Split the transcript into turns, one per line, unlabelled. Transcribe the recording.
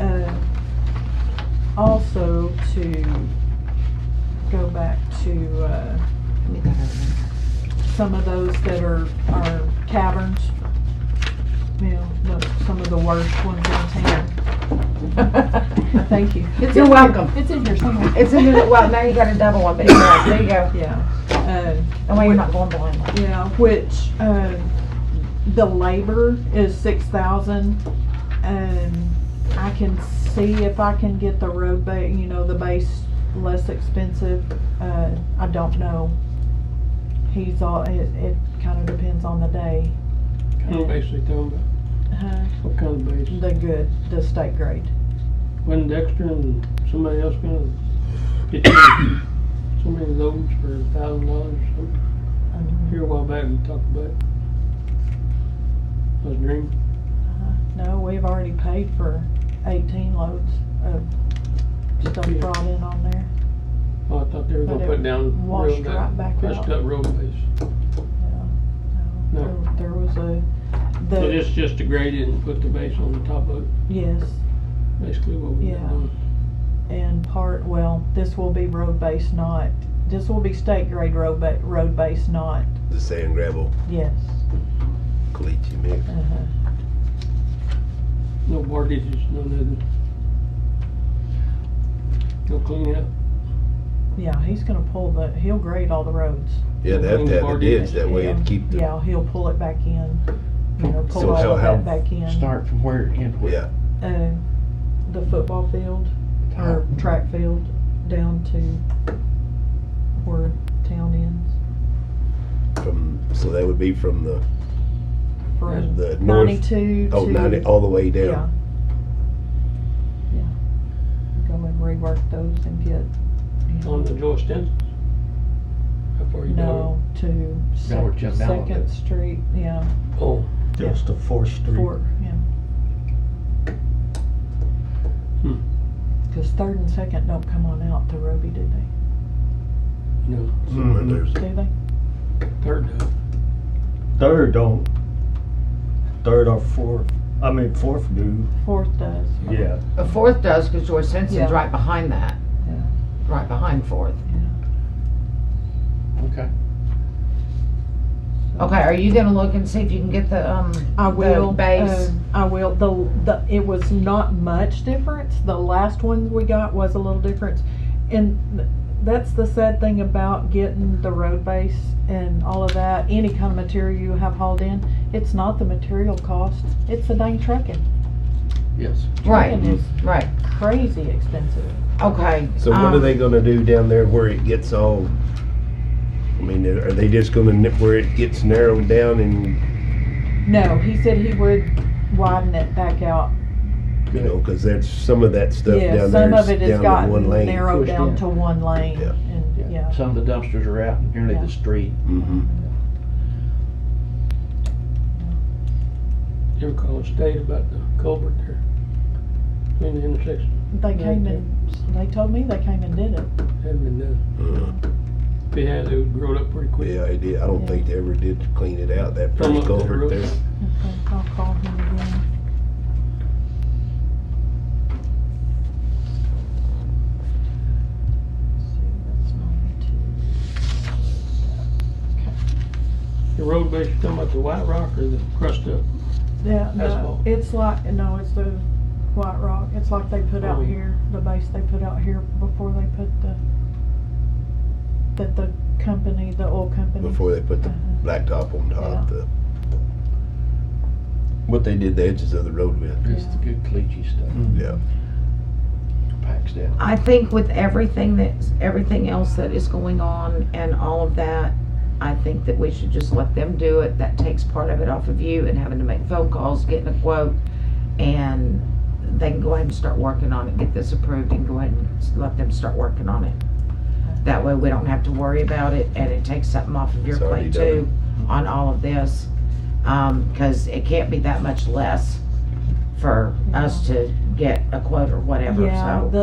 uh, also to go back to, uh,
Let me go over there.
some of those that are, are caverns. You know, the- some of the worst ones in town. Thank you. It's
You're
in here.
welcome.
It's in here somewhere.
It's in the, well, now you got a double one, but you're right, there you go.
Yeah, uh,
And why you're not going blind.
yeah, which, uh, the labor is six thousand. And I can see if I can get the road ba, you know, the base less expensive. Uh, I don't know. He's all, it, it kinda depends on the day.
Kind of base they talking about?
Uh,
What kind of base?
The good, the state grade.
Wasn't Dexter and somebody else gonna get you so many loads for a thousand dollars or something? Here a while back, we talked about it. Was dream,
Uh, No, we've already paid for eighteen loads of stuff
Yeah.
brought in on there.
oh, I thought they were
But
gonna
it
put down
washed
real
right back
bad,
out.
messed up road base.
Yeah,
No.
There- There was a,
So
the,
this just to grade it and put the base on the top of it,
yes,
basically what we
Yeah.
got done.
and part, well, this will be road base, not, this will be state grade road ba, road base, not,
The sand gravel
yes.
cleat you mix.
Uh-huh.
No mortgages, no nothing. No clean up.
Yeah, he's gonna pull the, he'll grade all the roads.
Yeah, they have to have a ditch that way
Yeah.
and keep the,
Yeah, he'll pull it back in, you know,
So
pull all
how-
of
how-
that back in.
Start from where it ends.
yeah.
uh, the football field or track field down to where town ends.
From, so that would be from the,
From
the north,
ninety-two to.
oh, ninety, all the way
Yeah.
down.
Yeah. Go and rework those and get. you
On
know,
the Joy Stenson? How far you down?
No, to
That would
Sec-
jump down a
Second
bit.
Street, yeah,
Oh,
Just a fourth street.
Fort, yeah.
Hmm.
Cause Third and Second don't come on out to Roby, do they?
no,
Mm-hmm.
Mm-hmm.
And there's
Do they?
third down.
Third don't. Third or fourth, I mean fourth do,
Fourth does.
yeah.
A fourth does, because George Simpson's
Yeah.
right behind that.
Yeah.
Right behind fourth.
Okay.
Okay, are you gonna look and see if you can get the, um,
I will.
the base?
um, I will. The, the, it was not much difference. The last one we got was a little difference. And th- that's the sad thing about getting the road base and all of that, any kind of material you have hauled in, it's not the material cost, it's the dang trucking.
Yes.
Right,
Trucking is
right,
crazy expensive.
okay.
So what are
um,
they gonna do down there where it gets all, I mean, are they just gonna, nip where it gets narrowed down and,
No, he said he would widen it back out.
you know, cause that's, some of that stuff
Yeah,
down
some
there
of it
is
has
down to one
gotten
lane.
narrowed
Pushed
down
in.
to one lane
Yeah.
and, yeah.
Some of the dumpsters are out nearly
Yeah.
the street.
Mhm.
You ever call the state about the culvert there? Between the intersection,
They came
Okay.
and, they told me they came and did it.
hadn't been done.
Uh,
If they had, it would grow up pretty quick.
Yeah, I did, I don't think they ever did clean it out, that
Come up
first
to the
culvert
roof.
there.
Okay, I'll call him again. See, that's ninety-two.
The road base, you talking about the white rock or the crust up?
Yeah, no,
Asphalt.
it's like, no, it's the White Rock, it's like they put
Oh.
out here, the base they put out here before they put the, that the company, the oil company.
before they put the
Uh-huh.
blacktop on top, the, what they did the edges of the road with,
It's the good cleachy stuff.
Mm.
yeah.
Packs down.
I think with everything that's, everything else that is going on and all of that, I think that we should just let them do it. That takes part of it off of you and having to make phone calls, getting a quote, and they can go ahead and start working on it, get this approved and go ahead and s- let them start working on it. That way we don't have to worry about it and it takes something off of your
It's already
plate too on all of this. Um, cause it can't be that much less for us to get a quote or whatever, so.
Yeah, the,